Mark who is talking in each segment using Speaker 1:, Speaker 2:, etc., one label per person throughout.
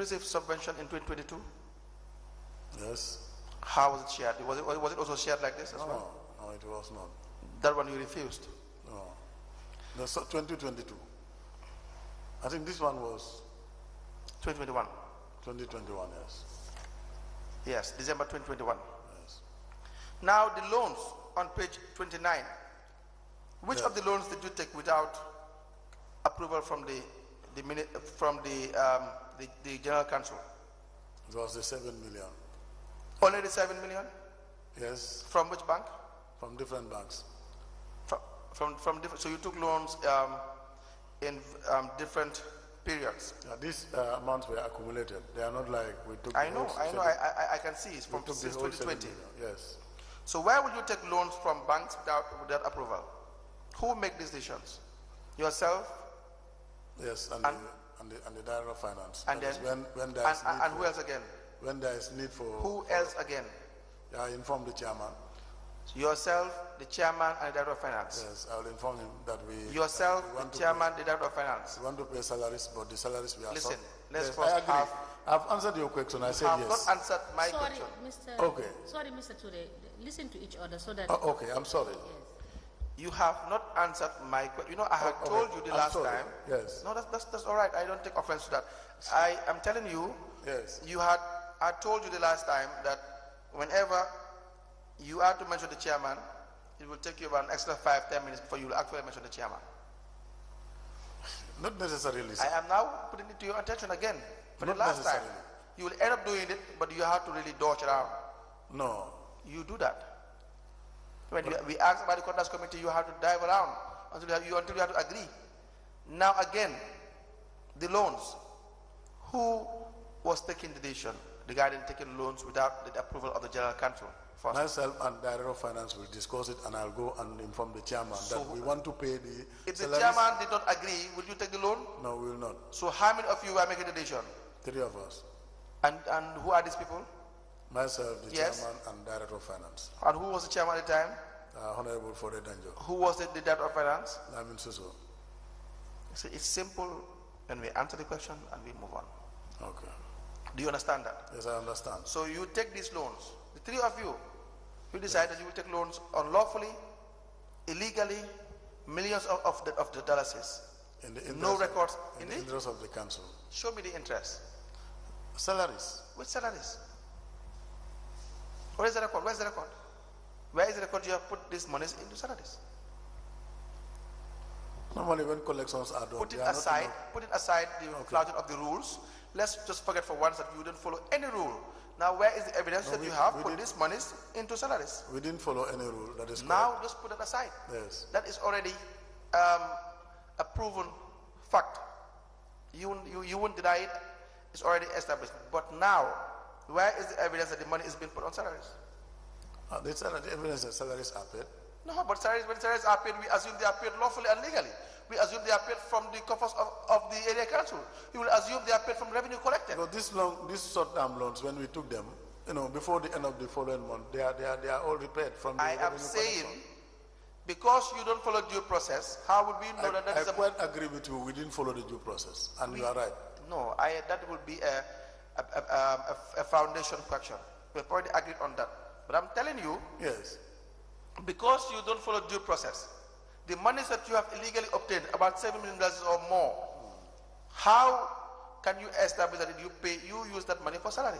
Speaker 1: receive subvention in 2022?
Speaker 2: Yes?
Speaker 1: How was it shared? Was it, was it also shared like this as well?
Speaker 2: No, no, it was not.
Speaker 1: That one you refused.
Speaker 2: No. The so- 2022. I think this one was
Speaker 1: 2021.
Speaker 2: 2021, yes.
Speaker 1: Yes, December 2021.
Speaker 2: Yes.
Speaker 1: Now the loans on page 29. Which of the loans did you take without approval from the the mini, from the, um, the the general council?
Speaker 2: It was the 7 million.
Speaker 1: Only the seven million
Speaker 2: Yes,
Speaker 1: from which bank?
Speaker 2: from different banks.
Speaker 1: From from, from different. So you took loans um, in um, different periods.
Speaker 2: Yeah, these uh, amounts were accumulated. They are not like we took.
Speaker 1: I
Speaker 2: the
Speaker 1: know,
Speaker 2: whole
Speaker 1: I know, I,
Speaker 2: seven-
Speaker 1: I, I can see it's from
Speaker 2: we took the
Speaker 1: since
Speaker 2: whole seven
Speaker 1: 2020.
Speaker 2: million. Yes.
Speaker 1: So why would you take loans from banks without without approval? Who make these decisions? Yourself
Speaker 2: Yes, and, the, and, the, and the Director of Finance.
Speaker 1: and then
Speaker 2: That is when, when, there
Speaker 1: and,
Speaker 2: is
Speaker 1: and,
Speaker 2: need
Speaker 1: and who
Speaker 2: for,
Speaker 1: else again?
Speaker 2: when there is need for.
Speaker 1: Who else again?
Speaker 2: Yeah, I informed the chairman.
Speaker 1: Yourself, the chairman, and the director of finance.
Speaker 2: Yes, I will inform him that we.
Speaker 1: Yourself,
Speaker 2: we want
Speaker 1: the
Speaker 2: to pay-
Speaker 1: chairman, the director of finance.
Speaker 2: We want to pay salaries, but the salaries we are.
Speaker 1: Listen,
Speaker 2: sub-
Speaker 1: let's
Speaker 2: Yes,
Speaker 1: first
Speaker 2: I agree.
Speaker 1: have-
Speaker 2: I've answered your question. I
Speaker 1: You
Speaker 2: said
Speaker 1: have
Speaker 2: yes.
Speaker 1: not answered my
Speaker 3: Sorry,
Speaker 1: question.
Speaker 3: Mr.
Speaker 2: Okay.
Speaker 3: Sorry, Mr. Ture. Listen to each other so that.
Speaker 2: Oh, okay, I'm sorry.
Speaker 1: You have not answered my question. You know, I had
Speaker 2: Oh, okay.
Speaker 1: told you the
Speaker 2: I'm
Speaker 1: last
Speaker 2: sorry.
Speaker 1: time.
Speaker 2: Yes.
Speaker 1: No, that's, that's that's all right. I don't take offense to that. I am telling you,
Speaker 2: Yes.
Speaker 1: you had I told you the last time that whenever you are to mention the chairman, it will take you about an extra five ten minutes before you will actually mention the chairman.
Speaker 2: Not necessarily. sir.
Speaker 1: I am now putting it to your attention again for the
Speaker 2: Not
Speaker 1: last time.
Speaker 2: necessarily.
Speaker 1: You will end up doing it, but you have to really dodge around.
Speaker 2: No.
Speaker 1: You do that. When you, we ask about the conduct committee, you have to dive around until you, have, you, until you have to agree. Now again, the loans. Who was taking the decision regarding taking loans without the approval of the general council? First,
Speaker 2: Myself and Director of Finance will discuss it and I'll go and inform the chairman
Speaker 1: So-
Speaker 2: that we want to pay the.
Speaker 1: if the
Speaker 2: salaries.
Speaker 1: chairman did not agree, would you take the loan?
Speaker 2: No, we will not.
Speaker 1: So how many of you were making the decision?
Speaker 2: Three of us.
Speaker 1: And and who are these people?
Speaker 2: Myself, the
Speaker 1: Yes.
Speaker 2: chairman and Director of Finance.
Speaker 1: And who was the chairman at the time?
Speaker 2: Uh, Honorable Fode Danjo,
Speaker 1: Who was the, the director of finance?
Speaker 2: Lamin Suso.
Speaker 1: See, it's simple when we answer the question and we move on.
Speaker 2: Okay.
Speaker 1: Do you understand that?
Speaker 2: Yes, I understand.
Speaker 1: So you take these loans, the three of you, you decide that you will take loans unlawfully, illegally, millions of, of, the, of the dollars.
Speaker 2: In the
Speaker 1: No
Speaker 2: interest,
Speaker 1: records.
Speaker 2: in the
Speaker 1: Indeed?
Speaker 2: interest of the council.
Speaker 1: Show me the interest.
Speaker 2: Salaries.
Speaker 1: Which salaries? Where is the record? Where is the record? Where is the record you have put these monies into salaries?
Speaker 2: Normally when collections are done.
Speaker 1: Put it
Speaker 2: they are not
Speaker 1: aside,
Speaker 2: enough.
Speaker 1: put it aside the flouting of the rules. Let's just forget for once that you didn't follow any rule. Now, where is the evidence that
Speaker 2: we-
Speaker 1: you have
Speaker 2: we
Speaker 1: put
Speaker 2: did-
Speaker 1: these monies into salaries?
Speaker 2: We didn't follow any rule, that is correct.
Speaker 1: Now, just put it aside.
Speaker 2: Yes,
Speaker 1: That is already um, a proven fact. You, won't- you, you won't deny it. It's already established. But now, where is the evidence that the money is being put on salaries?
Speaker 2: Uh, they said that the evidence that salaries are paid.
Speaker 1: No, but salaries, when salaries are paid, we assume they are paid lawfully and legally. We assume they are paid from the coffers of, of the area council. You will assume they are paid from revenue collected.
Speaker 2: Because this long, these short-term loans, when we took them, you know, before the end of the following month, they are, they are, they are all repaid from the.
Speaker 1: I am
Speaker 2: revenue
Speaker 1: saying,
Speaker 2: collector.
Speaker 1: because you don't follow due process, how would we know that that
Speaker 2: I, I
Speaker 1: is a...
Speaker 2: quite agree with you, we didn't follow the due process, and you are right.
Speaker 1: No, I, that would be a, a, a, a, a foundation question. We've already agreed on that. But I'm telling you,
Speaker 2: Yes,
Speaker 1: because you don't follow due process, the monies that you have illegally obtained, about seven million dollars or more, how can you establish that you pay, you use that money for salary?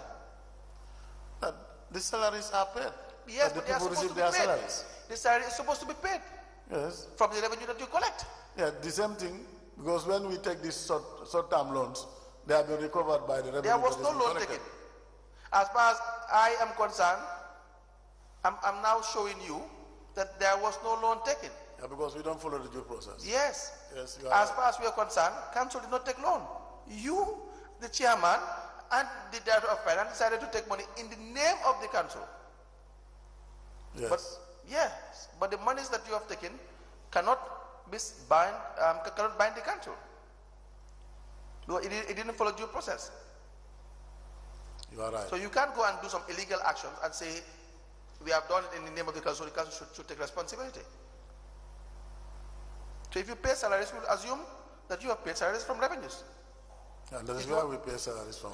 Speaker 2: that, the salaries are paid.
Speaker 1: Yes,
Speaker 2: that
Speaker 1: but
Speaker 2: the
Speaker 1: they are
Speaker 2: people
Speaker 1: supposed
Speaker 2: receive
Speaker 1: to be
Speaker 2: their
Speaker 1: paid.
Speaker 2: salaries.
Speaker 1: The salary is supposed to be paid
Speaker 2: Yes,
Speaker 1: from the revenue that you collect.
Speaker 2: yeah, the same thing, because when we take these short, short-term loans, they have been recovered by the revenue.
Speaker 1: There was
Speaker 2: that is
Speaker 1: no
Speaker 2: being
Speaker 1: loan
Speaker 2: collected.
Speaker 1: taken. As far as I am concerned, I'm, I'm now showing you that there was no loan taken.
Speaker 2: Yeah, because we don't follow the due process.
Speaker 1: Yes.
Speaker 2: Yes, you are
Speaker 1: As
Speaker 2: right.
Speaker 1: far as we are concerned, council did not take loan. You, the chairman, and the director of finance decided to take money in the name of the council. But
Speaker 2: Yes,
Speaker 1: yes, but the monies that you have taken cannot be s- bind, um, ca- cannot bind the council. No, It, di- it didn't follow due process.
Speaker 2: you are right.
Speaker 1: So you can't go and do some illegal actions and say, we have done it in the name of the council, the council should, should take responsibility. So if you pay salaries, we'll assume that you have paid salaries from revenues.
Speaker 2: And that is why we pay salaries from.